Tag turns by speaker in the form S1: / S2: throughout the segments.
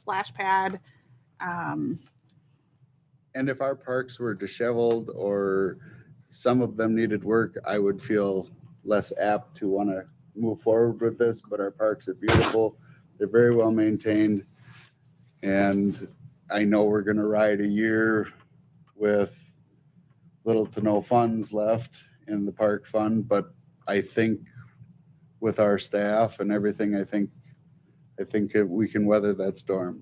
S1: splash pad. Um,
S2: And if our parks were disheveled or some of them needed work, I would feel less apt to want to move forward with this, but our parks are beautiful. They're very well maintained. And I know we're going to ride a year with little to no funds left in the park fund, but I think with our staff and everything, I think, I think that we can weather that storm.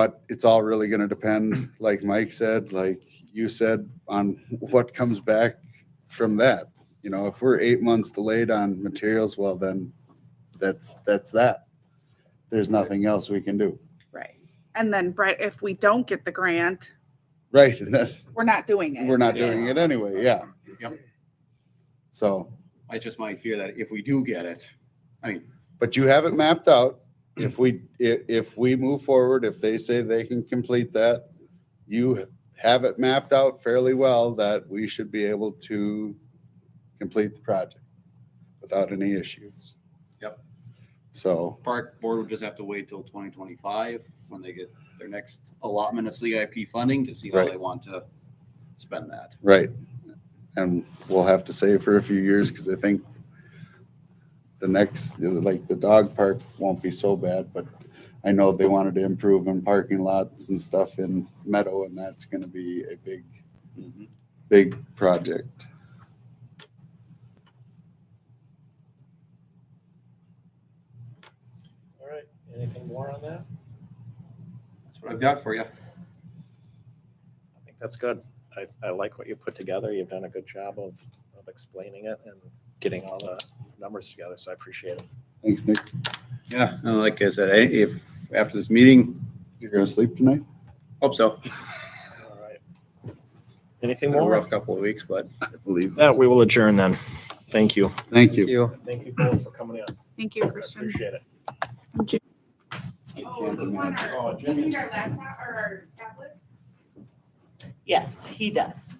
S2: But it's all really gonna depend, like Mike said, like you said, on what comes back from that. You know, if we're eight months delayed on materials, well then, that's, that's that. There's nothing else we can do.
S1: right. And then, Brett, if we don't get the grant,
S2: Right, and that,
S1: we're not doing it.
S2: we're not doing it anyway, yeah.
S3: Yep.
S2: So,
S3: I just might fear that if we do get it, I mean,
S2: but you have it mapped out. If we, if, if we move forward, if they say they can complete that, you have it mapped out fairly well that we should be able to complete the project without any issues.
S3: Yep.
S2: So,
S3: park board would just have to wait till twenty twenty-five when they get their next allotment of CIP funding to see how
S2: Right.
S3: they want to spend that.
S2: right. And we'll have to save for a few years because I think the next, like the dog park won't be so bad, but I know they wanted to improve in parking lots and stuff in Meadow and that's going to be a big
S3: Mhm.
S2: big project.
S4: All right, anything more on that?
S3: That's what I've got for you.
S4: I think that's good. I, I like what you put together. You've done a good job of, of explaining it and getting all the numbers together, so I appreciate it.
S2: Thanks, Nick.
S3: Yeah, and like I said, eh, if, after this meeting,
S2: You're gonna sleep tonight?
S3: hope so.
S4: All right. Anything
S3: Been a
S4: more?
S3: rough couple of weeks, but
S2: I believe.
S4: That we will adjourn then. Thank you.
S2: Thank you.
S4: Thank you both for coming in.
S1: Thank you,
S4: I
S1: Christian.
S4: appreciate it.
S1: Oh, we want our-
S4: Oh,
S1: do you need
S4: Jimmy's-
S1: our laptop or our tablet? Oh,
S5: Yes, he does.